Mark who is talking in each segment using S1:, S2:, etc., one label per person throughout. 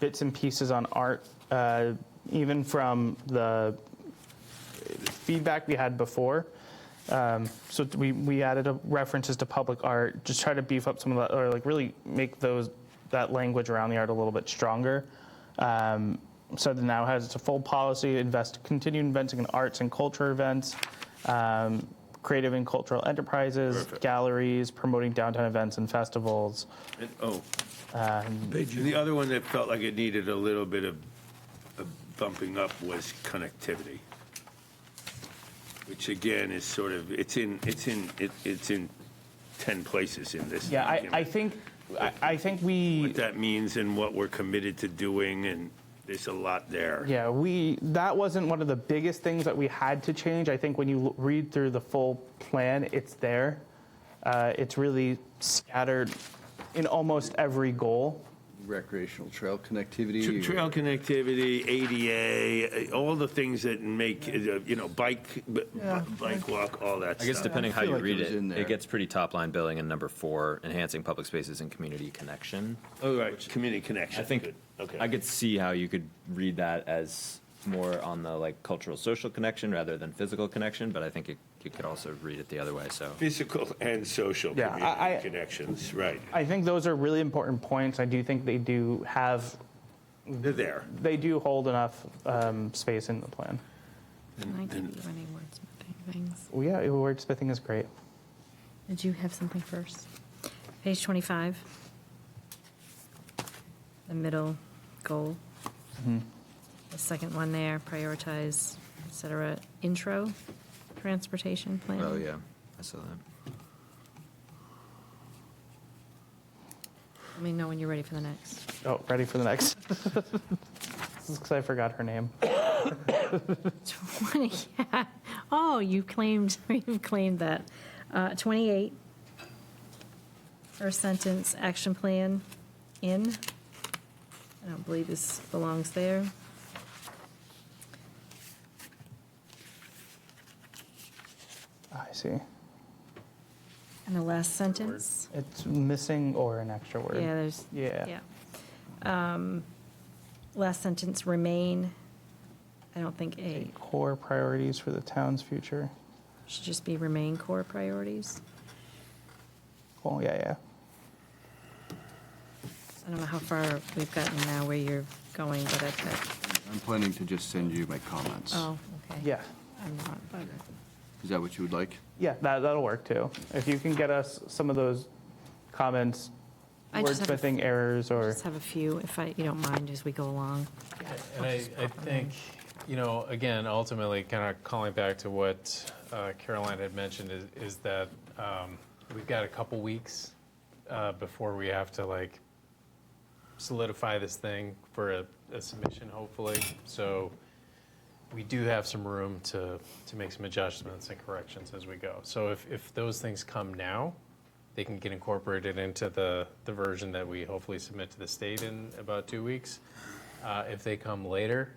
S1: bits and pieces on art, uh, even from the feedback we had before. Um, so we, we added a, references to public art, just try to beef up some of that, or like really make those that language around the art a little bit stronger. Um, so that now has a full policy, invest, continue investing in arts and culture events, um, creative and cultural enterprises,
S2: Perfect.
S1: galleries, promoting downtown events and festivals.
S2: And- Oh.
S1: Um,
S2: And The other one that felt like it needed a little bit of of bumping up was connectivity, which again is sort of, it's in, it's in, it- it's in 10 places in this.
S1: Yeah, I, I
S2: document.
S1: think I, I think we
S2: What that means and what we're committed to doing, and there's a lot there.
S1: Yeah, we that wasn't one of the biggest things that we had to change. I think when you l- read through the full plan, it's there. Uh, it's really scattered in almost every goal.
S3: Recreational trail connectivity.
S2: Tra-
S3: or-
S2: Trail connectivity, ADA, eh, all the things that make, eh, you know, bike, b- b- bike walk, all that stuff.
S4: I guess depending how
S3: feel
S4: you
S3: like it
S4: read
S3: was
S4: it,
S3: in there.
S4: it gets pretty top line billing in number four, enhancing public spaces and community connection.
S2: All Oh, right, community connection.
S4: I think
S2: Good. Okay.
S4: I could see how you could read that as more on the like cultural social connection rather than physical connection, but I think it, you could also read it the other way. So
S2: Physical and social
S1: Yeah,
S2: community
S1: I- I-
S2: connections, right.
S1: I think those are really important points. I do think they do have
S2: They're there.
S1: they do hold enough um, space in the plan.
S5: I didn't do any wordsmithing things.
S1: Well, yeah, wordsmithing is great.
S5: Did you have something first? Page 25. The middle goal.
S4: Mm-hmm.
S5: The second one there, prioritize, et cetera. Intro, transportation plan.
S4: oh yeah, I saw that.
S5: Let me know when you're ready for the next.
S1: Oh, ready for the next? Because I forgot her name.
S5: 20, yeah. Oh, you claimed, you've claimed that. Uh, 28. First sentence, action plan in. I don't believe this belongs there.
S1: I see.
S5: And the last sentence.
S1: It's missing or an extra word.
S5: Yeah, there's,
S1: Yeah.
S5: yeah. Um, Last sentence, remain. I don't think A,
S1: Core priorities for the town's future.
S5: should just be remain core priorities.
S1: Cool. Yeah, yeah.
S5: I don't know how far we've gotten now where you're going, but I think,
S3: I'm planning to just send you my comments.
S5: oh, okay.
S1: Yeah,
S5: I'm not, but
S3: Is that what you would like?
S1: yeah, that, that'll work too. If you can get us some of those comments,
S5: I just have a-
S1: wordsmithing errors
S5: I
S1: or,
S5: just have a few, if I, you don't mind, as we go along.
S6: And I, I think, you know, again, ultimately, kind of calling back to what uh, Caroline had mentioned is, is that um, we've got a couple weeks uh, before we have to like solidify this thing for a, a submission, hopefully. So we do have some room to, to make some adjustments and corrections as we go. So if, if those things come now, they can get incorporated into the, the version that we hopefully submit to the state in about two weeks. Uh, if they come later,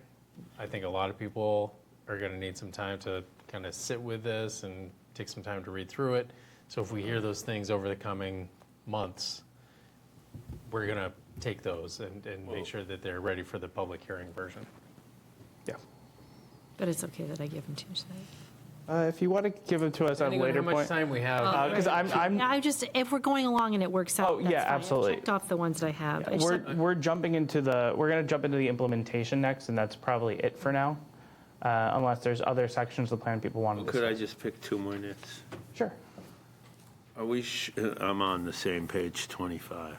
S6: I think a lot of people are going to need some time to kind of sit with this and take some time to read through it. So if we hear those things over the coming months, we're going to take those and, and make sure that they're ready for the public hearing version.
S1: yeah.
S5: But it's okay that I give them to you tonight.
S1: Uh, If you want to give them to us at a
S6: Depending on
S1: later
S6: how much
S1: point. Uh,
S6: time we have.
S1: Because I'm,
S5: Yeah,
S1: I'm,
S5: I just, if we're going along and it works out,
S1: Oh, yeah,
S5: that's fine. I
S1: absolutely.
S5: checked off the ones that I have. I just
S1: we're,
S5: have-
S1: we're jumping into the, we're going to jump into the implementation next, and that's probably it for now. uh, Unless there's other sections of the plan people want to
S2: Could I
S1: discuss.
S2: just pick two minutes?
S1: Sure.
S2: Are we, sh- uh, I'm on the same page 25.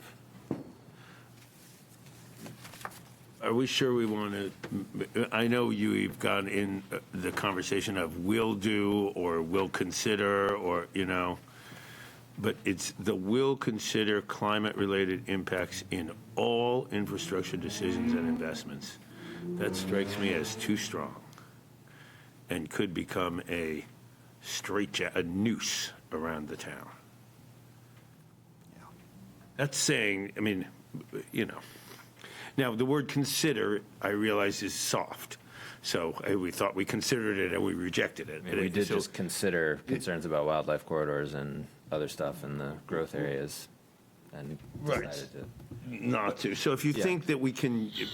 S2: Are we sure we want to, I know you've gone in uh, the conversation of will do or will consider or, you know, but it's the will consider climate-related impacts in all infrastructure decisions and investments. That strikes me as too strong and could become a straight, a noose around the town. That's saying, I mean, you know. Now, the word consider, I realize, is soft. So eh, we thought we considered it and we rejected it.
S4: I mean, we did
S2: So-
S4: just consider concerns about wildlife corridors and other stuff in the growth areas and
S2: Right.
S4: decided to.
S2: Not to. So if you
S4: Yeah.
S2: think that we can